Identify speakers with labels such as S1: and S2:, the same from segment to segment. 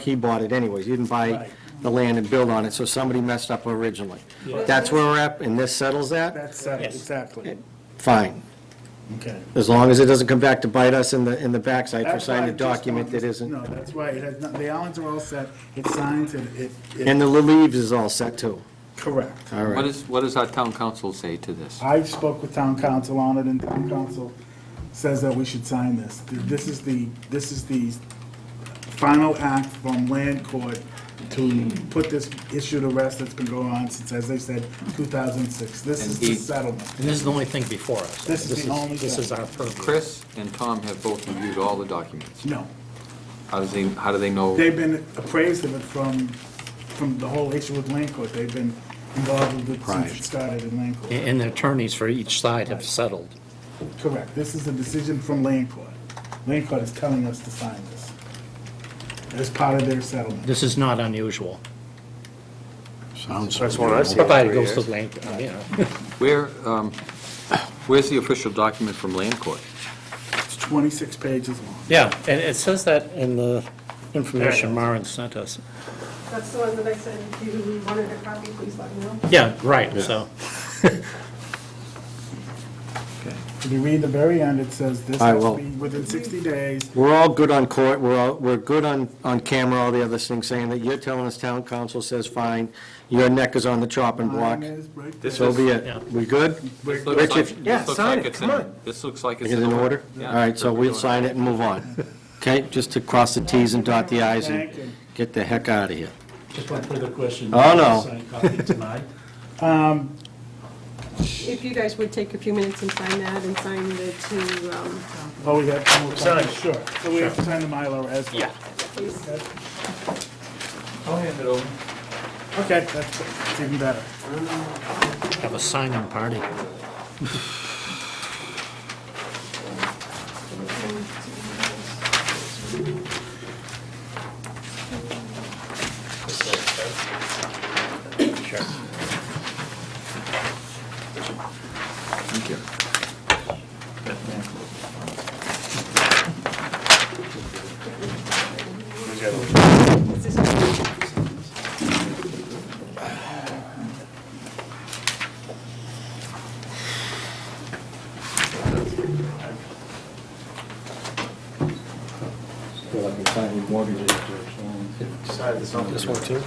S1: he bought it anyways, he didn't buy
S2: Right.
S1: the land and build on it, so somebody messed up originally.
S2: Yeah.
S1: That's where we're at, and this settles that?
S2: That's settled, exactly.
S1: Fine,
S2: Okay.
S1: as long as it doesn't come back to bite us in the, in the backside for
S2: That's why
S1: signing a
S2: I just
S1: document
S2: wanted-
S1: that isn't.
S2: No, that's why, it has, not- the islands are all set, it's signed, and it,
S1: And
S2: it,
S1: the leaves is all set too,
S2: correct.
S1: all
S3: What
S1: right.
S3: is, what does our town council say to this?
S2: I spoke with town council on it, and town council says that we should sign this. This is the, this is the final act from land court to put this issue to rest that's been going on since, as they said, 2006. This is the
S3: Indeed.
S2: settlement.
S4: And this is the only thing before us.
S2: This is the only
S4: This
S2: thing.
S4: is our purview.
S3: Chris and Tom have both reviewed all the documents.
S2: No.
S3: How does they, how do they know?
S2: They've been appraised of it from, from the whole issue with land court. They've been involved with it since it started in land court.
S4: And the attorneys for each side have settled.
S2: Correct. This is a decision from land court. Land court is telling us to sign this as part of their settlement.
S4: This is not unusual,
S5: That's one I see.
S4: provided it goes to the land, you know.
S3: Where, um, where's the official document from land court?
S2: It's 26 pages long.
S4: Yeah, and it says that in the information Maren sent us.
S6: That's the one that I said, if you wanted a copy, please let me know.
S4: Yeah, right, so,
S2: If you read the very end, it says this
S1: I
S2: has
S1: will.
S2: to be within 60 days.
S1: We're all good on court, we're all, we're good on, on camera, all the other things, saying that you're telling us town council says fine, your neck is on the chopping block,
S2: Mine is right
S3: This
S2: there.
S1: so be
S4: Yeah.
S1: it. We good?
S3: This
S2: Right
S3: looks
S1: Rich,
S3: like-
S1: if-
S3: this
S1: yeah,
S3: looks
S1: sign
S3: like
S1: it,
S3: it's in-
S1: come on.
S3: This looks like it's
S1: Is it in order? All right, so we'll sign it and move on. Okay, just to cross the Ts and dot the Is
S2: Thank
S1: and
S2: you.
S1: get the heck out of here.
S7: Just one further question.
S1: Oh, no.
S7: Signed copy tonight.
S6: If you guys would take a few minutes and sign that and sign the two, um,
S2: Oh, we have to
S5: Sign.
S2: Sure. So we have to sign the Mylar as well.
S6: please.
S7: I'll hand it over.
S2: Okay, that's even better.
S4: have a signing party.
S5: This one too?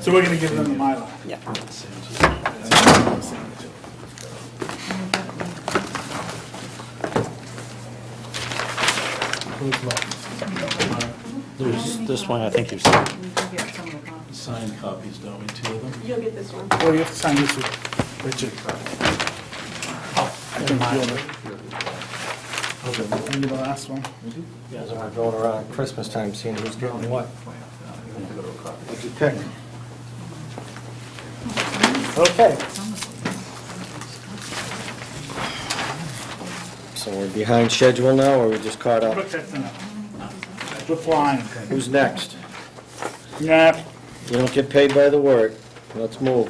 S2: So we're going to give them the Mylar.
S4: There's this one, I think you've seen.
S7: Signed copies, don't we, two of them?
S6: You'll get this one.
S2: Well, you have to sign this with Richard. Oh, I think you're the, you the last one.
S1: As we're going around Christmas time, seeing who's getting what. What'd you pick?
S2: Okay.
S1: So we're behind schedule now, or we just caught up?
S2: That's enough. We're flying.
S1: Who's next?
S2: Yeah.
S1: You don't get paid by the word. Let's move.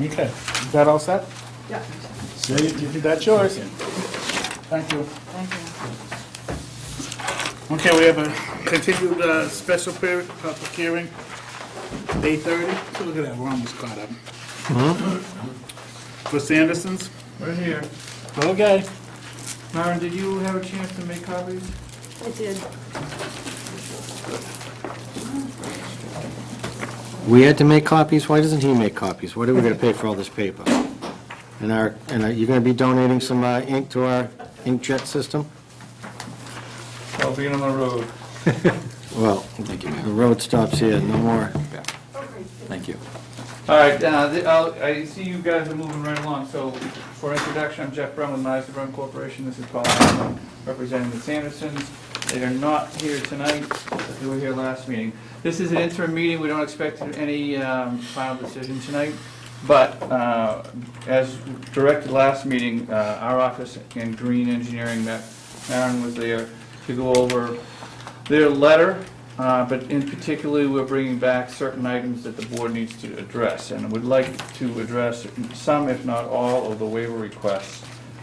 S2: Okay. Is that all set?
S6: Yeah.
S2: So you, you- that's yours. Thank you. Okay, we have a continued, uh, special period, public hearing, eight thirty. Look at that, we're almost caught up. For Sanderson's?
S5: Right here.
S2: Okay.
S5: Myron, did you have a chance to make copies?
S6: I did.
S1: We had to make copies? Why doesn't he make copies? What are we gonna pay for all this paper? And our, and are you gonna be donating some uh, ink to our inkjet system?
S5: Well, being on the road.
S1: Well,
S3: Thank you,
S1: the
S3: Mayor.
S1: road stops here, no more.
S3: Yeah. Thank you.
S5: All right, uh, the- I'll- I see you guys are moving right along, so for introduction, I'm Jeff Brown with Mazda Brown Corporation. This is Paul Allen, representing the Sandersons. They are not here tonight, they were here last meeting. This is an interim meeting, we don't expect any um, final decision tonight, but uh, as directed last meeting, uh, our office and Green Engineering, that Aaron was there to go over their letter, uh, but in particular, we're bringing back certain items that the board needs to address, and would like to address some, if not all, of the waiver requests